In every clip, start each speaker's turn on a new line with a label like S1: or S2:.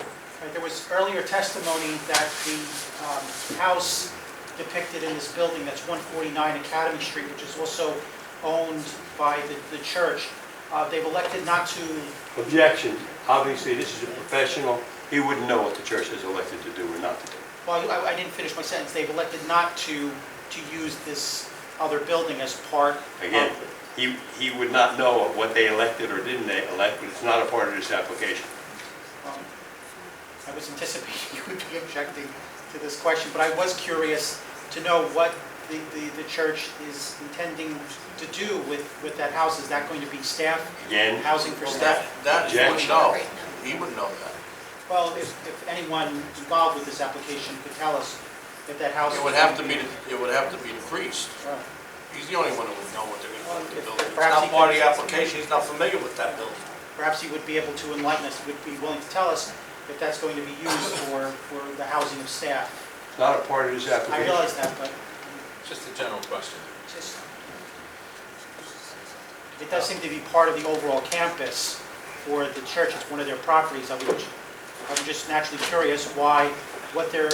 S1: Right, There was earlier testimony that the um, house depicted in this building, that's 149 Academy Street, which is also owned by the- the church, uh, they've elected not to,
S2: Objection. Obviously, this is a professional. He wouldn't know what the church has elected to do or not to do.
S1: well, I- I didn't finish my sentence, they've elected not to, to use this other building as part of...
S2: Again, he, he would not know what they elected or didn't they elect, but it's not a part of this application.
S1: Um, I was anticipating you would be objecting to this question, but I was curious to know what the, the- the church is intending to do with, with that house. Is that going to be staff,
S2: Again,
S1: housing for
S3: Well,
S1: staff?
S3: that, that he
S2: Objection.
S3: wouldn't know. He wouldn't know that.
S1: Well, if, if anyone involved with this application could tell us if that house...
S3: It would have to be, the- it would have to be the priest.
S1: Well,
S3: He's the only one who would know what they're gonna do with the building. It's
S1: Perhaps he
S3: not part of
S1: could-
S3: the application, he's not familiar with that building.
S1: Perhaps he would be able to enlighten us, would be willing to tell us if that's going to be used for, for the housing of staff.
S2: it's not a part of this
S1: I
S2: application.
S1: realize that, but
S4: Just a general question.
S1: just, it does seem to be part of the overall campus for the church, it's one of their properties, I would, I'm just naturally curious why, what their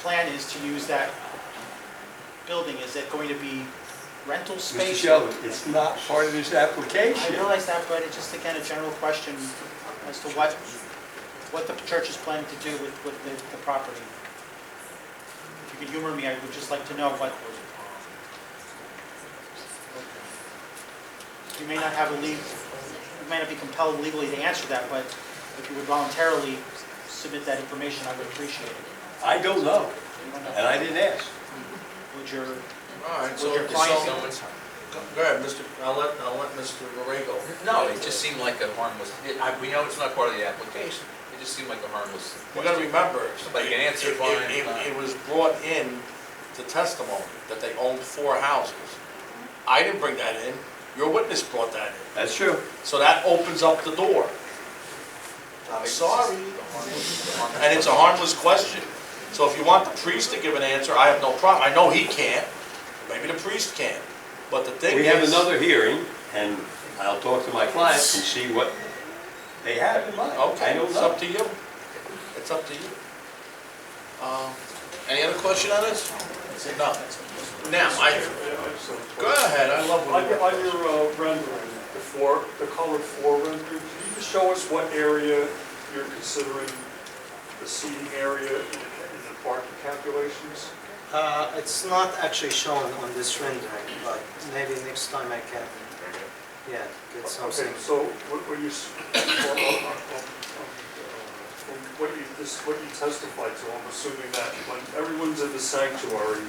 S1: plan is to use that building, is it going to be rental
S2: Mr.
S1: space?
S2: Sheldon, it's not part of this
S1: I
S2: application.
S1: realize that, but it's just again a general question as to what, what the church is planning to do with, with the, the property. If you could humor me, I would just like to know what. You may not have a legal, you may not be compelled legally to answer that, but if you would voluntarily submit that information, I would appreciate it.
S2: I don't know, and I didn't ask.
S1: Would your,
S3: All right, so,
S1: Would your client-
S3: so,
S4: Someone's-
S3: go ahead, Mr., I'll let, I'll let Mr. Borrego.
S4: No, it just seemed like a harmless, it- I- we know it's not part of the application. It just seemed like a harmless
S3: You gotta
S4: question.
S3: remember.
S4: Somebody can answer
S3: it- it-
S4: fine,
S3: it-
S4: uh,
S3: It was brought in to testimony that they owned four houses. I didn't bring that in, your witness brought that in.
S2: That's true.
S3: So that opens up the door. I'm sorry. And it's a harmless question. So if you want the priest to give an answer, I have no problem. I know he can't, maybe the priest can't, but the thing is.
S2: We have another hearing, and I'll talk to my clients and see what they have in mind. I
S3: Okay,
S2: don't
S3: it's
S2: know.
S3: up to you. It's up to you. Um, Any other question on this? No. Now, I, go ahead, I love
S5: On
S3: what you
S5: your, on your uh, rendering, the four, the colored four rendering, can you just show us what area you're considering the seating area in in the parking calculations?
S6: Uh, It's not actually shown on this rendering, but maybe next time I can, yeah, get something.
S5: Okay, so what were you, s- on- on- on- on, uh, what you, this, what you testified to, I'm assuming that when everyone's in the sanctuary,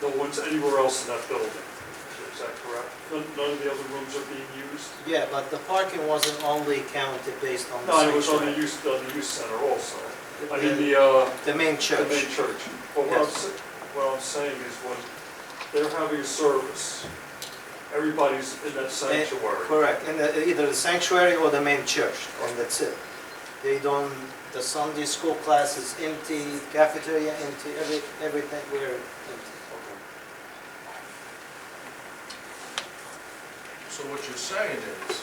S5: no one's anywhere else in that building, is that correct? None none of the other rooms are being used?
S6: Yeah, but the parking wasn't only counted based on the
S5: No, it was on the
S6: sanctuary.
S5: youth, on the youth center also. I
S6: The-
S5: mean, the, uh,
S6: The main
S5: the main
S6: church,
S5: church. But what I'm,
S6: Yes.
S5: sa- what I'm saying is when they're having a service, everybody's in that sanctuary.
S6: correct, in the- either the sanctuary or the main church, and that's it. They don't, the Sunday school class is empty, cafeteria empty, every, everything, we're empty.
S3: So what you're saying is,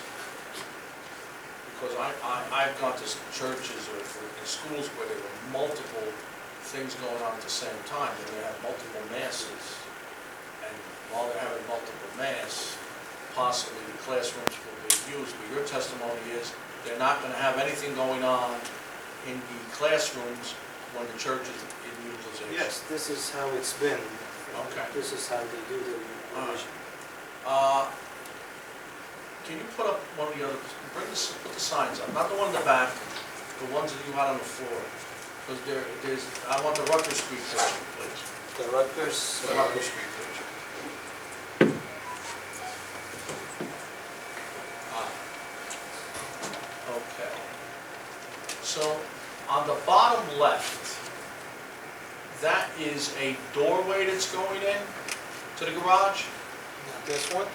S3: because I, I, I've gone to s- churches or for- in schools where there were multiple things going on at the same time, and they have multiple masses. And while they're having multiple mass, possibly the classrooms will be used, but your testimony is they're not gonna have anything going on in the classrooms when the church is in utilization.
S6: Yes, this is how it's been.
S3: Okay.
S6: This is how they do the
S3: All right.
S6: revision.
S3: Uh, Can you put up one of the other, bring the, put the signs up, not the one in the back, the ones that you had on the floor. Because there, there's, I want the Rutgers Street picture, please.
S6: The Rutgers,
S3: The Rutgers Street picture. Ah. Okay. So, on the bottom left, that is a doorway that's going in to the garage?
S6: this one?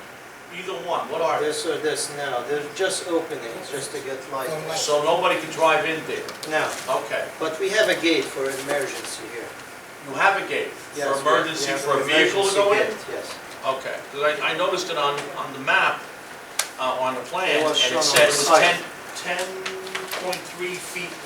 S3: Either one, what are they?
S6: This or this, no, they're just openings, just to get light.
S3: So nobody can drive in there?
S6: No,
S3: Okay.
S6: but we have a gate for emergency here.
S3: You have a gate for
S6: Yes, we-
S3: emergency,
S6: we have
S3: for a
S6: an
S3: vehicle to
S6: emergency
S3: go in?
S6: gate, Yes.
S3: Okay, 'Cause I, I noticed it on, on the map, uh, on the plan,
S6: It
S3: and
S6: was shown
S3: it
S6: on
S3: said it was
S6: the site.
S3: 10, 10.3 feet